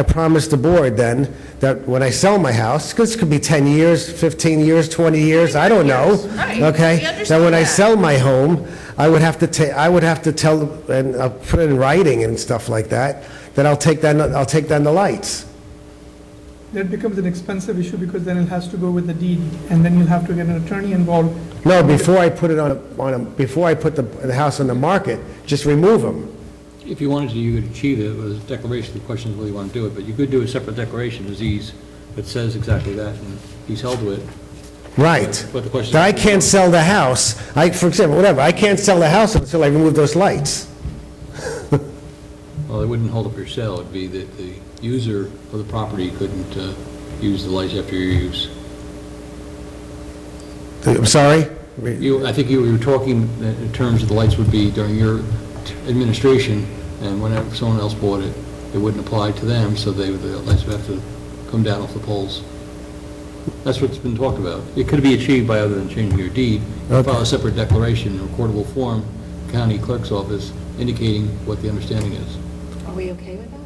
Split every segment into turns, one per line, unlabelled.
I promised the board then that when I sell my house, 'cause this could be 10 years, 15 years, 20 years, I don't know.
years, right. We
Okay? That
understand
when I
that.
sell my home, I would have to ta, I would have to tell, and I'll put it in writing and stuff like that, that I'll take down, I'll take down the lights.
That becomes an expensive issue because then it has to go with the deed, and then you'll have to get an attorney involved.
No, before I put it on, a- on, a- before I put the, the house on the market, just remove them.
If you wanted to, you could achieve it with a declaration, the question is whether you want to do it, but you could do a separate declaration, as he's, that says exactly that, and he's held to it.
Right.
But the question-
That I can't sell the house, I, for example, whatever, I can't sell the house until I remove those lights.
Well, it wouldn't hold up your sale, it'd be that the user of the property couldn't uh, use the lights after your use.
I'm sorry?
You, I think you were talking uh, in terms of the lights would be during your administration, and whenever someone else bought it, it wouldn't apply to them, so they, the lights would have to come down off the poles. That's what's been talked about. It could be achieved by other than changing your deed. You File a separate declaration in recordable form, county clerk's office, indicating what the understanding is.
Are we okay with that?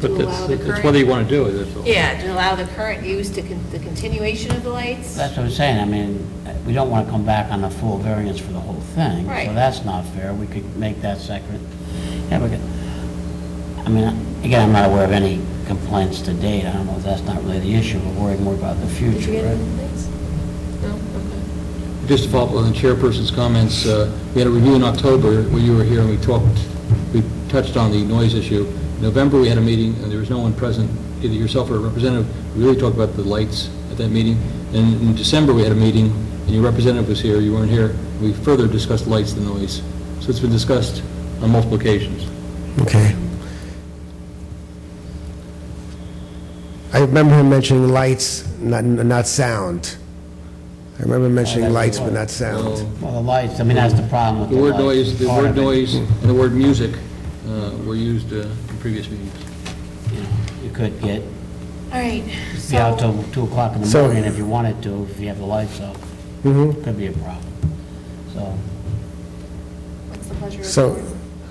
But
allow
that's,
the
that's
current-
whether you want to do it, that's all.
Yeah, to allow the current use to, con- the continuation of the lights?
That's what I'm saying, I mean, we don't want to come back on a full variance for the whole thing.
Right.
So that's not fair, we could make that separate. Yeah, we could, I mean, again, I'm not aware of any complaints to date, I don't know if that's not really the issue, we're worried more about the
Did you get
future,
any
right?
things? No, okay.
Just to follow up on the chairperson's comments, uh, we had a review in October when you were here, and we talked, we touched on the noise issue. In November, we had a meeting, and there was no one present, either yourself or a representative. We really talked about the lights at that meeting. And in December, we had a meeting, and your representative was here, you weren't here. We further discussed lights and noise. So it's been discussed on multiple occasions.
Okay. I remember him mentioning lights, not, not sound. I remember mentioning
that's
lights,
the
but
one.
not sound.
Well, the lights, I mean, that's the problem with
The
the
word
lights.
noise, the
Part
word
of it.
noise and the word music uh, were used uh, in previous meetings.
You know, You could get,
All right,
be out
so,
till 2 o'clock in the
So-
morning if you wanted to, if you have the lights up,
hmm
could be a problem. So,
what's the pleasure of the
So,
board?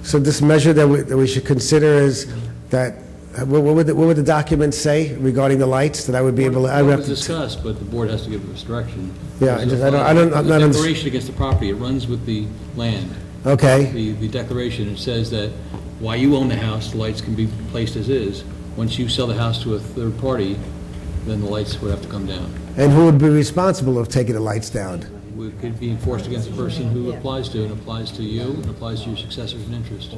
so this measure that we, that we should consider is that, uh, what what would, the- what would the document say regarding the lights, that I would be able, I would
It
have
was
to... t-
discussed, but the board has to give us direction.
Yeah, I just- I don't- I don't- I'm not
The
unders-
declaration against the property, it runs with the land.
Okay,
The, the declaration, it says that while you own the house, the lights can be placed as is. Once you sell the house to a third party, then the lights would have to come down.
and who would be responsible of taking the lights down?
It could be enforced against the person who applies to, and applies to you, and applies to your successors in interest.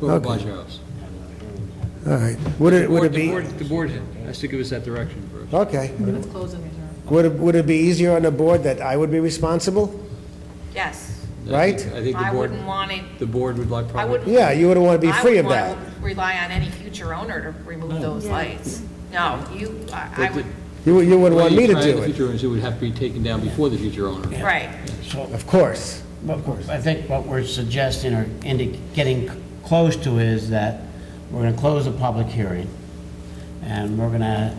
Whoever
Okay.
buys your house.
All right, would it, would it
The
be,
board- The board has to give us that direction first.
okay.
Let's close and reserve.
Would it, would it be easier on the board that I would be responsible?
Yes.
I
Right?
think- I think the
I
board,
wouldn't want it,
the board would like
I
probably...
wouldn't.
Yeah, you wouldn't want to be free of
I
that.
wouldn't want to rely on any future owner to remove those lights. No, you, I I
But
would,
You, wou- you wouldn't
Well,
want
you
me to
try in
do
the
it,
future owners, it would have to be taken down before the future owner.
right.
so
of course.
Of course. I think what we're suggesting or indi- getting c- close to is that we're going to close the public hearing, and we're going to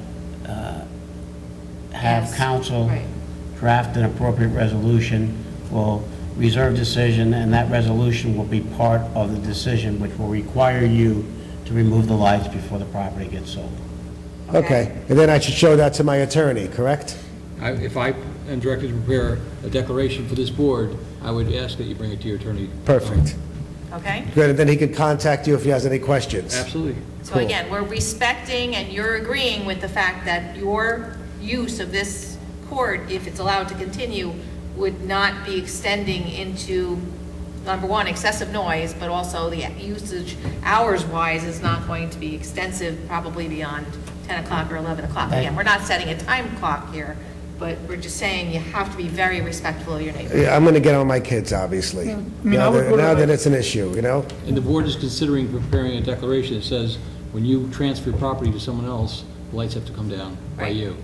have
Yes,
council
right.
draft an appropriate resolution, will reserve decision, and that resolution will be part of the decision, which will require you to remove the lights before the property gets sold.
Okay, and then I should show that to my attorney, correct?
I- If I am directed to prepare a declaration for this board, I would ask that you bring it to your attorney.
Perfect.
Okay?
Good, and then he could contact you if he has any questions.
Absolutely.
So
Cool.
again, we're respecting and you're agreeing with the fact that your use of this court, if it's allowed to continue, would not be extending into, number one, excessive noise, but also the usage hours-wise is not going to be extensive, probably beyond 10 o'clock or 11 o'clock. Again, we're not setting a time clock here, but we're just saying you have to be very respectful of your neighbor.
Yeah, I'm going to get on my kids, obviously.
mean, I
Now
would
that
put it
now that
like-
it's an issue, you know?
And the board is considering preparing a declaration that says, when you transfer property to someone else, the lights have to come down by
Right.
you.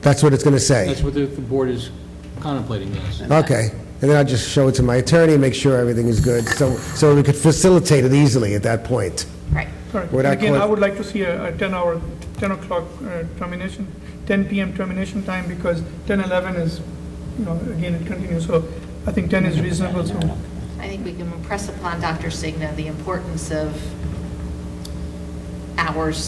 That's what it's going to say.
That's what the the board is contemplating, yes.
Okay, and then I'll just show it to my attorney, make sure everything is good, so, so we could facilitate it easily at that point.
Right.
Correct.
Would
And
I
Again,
call-
I would like to see a a 10-hour, 10 o'clock uh, termination, 10 PM termination time, because 10, 11 is, you know, again, it continues, so I think 10 is reasonable, so
I think we can impress upon Dr. Signa the importance of
hours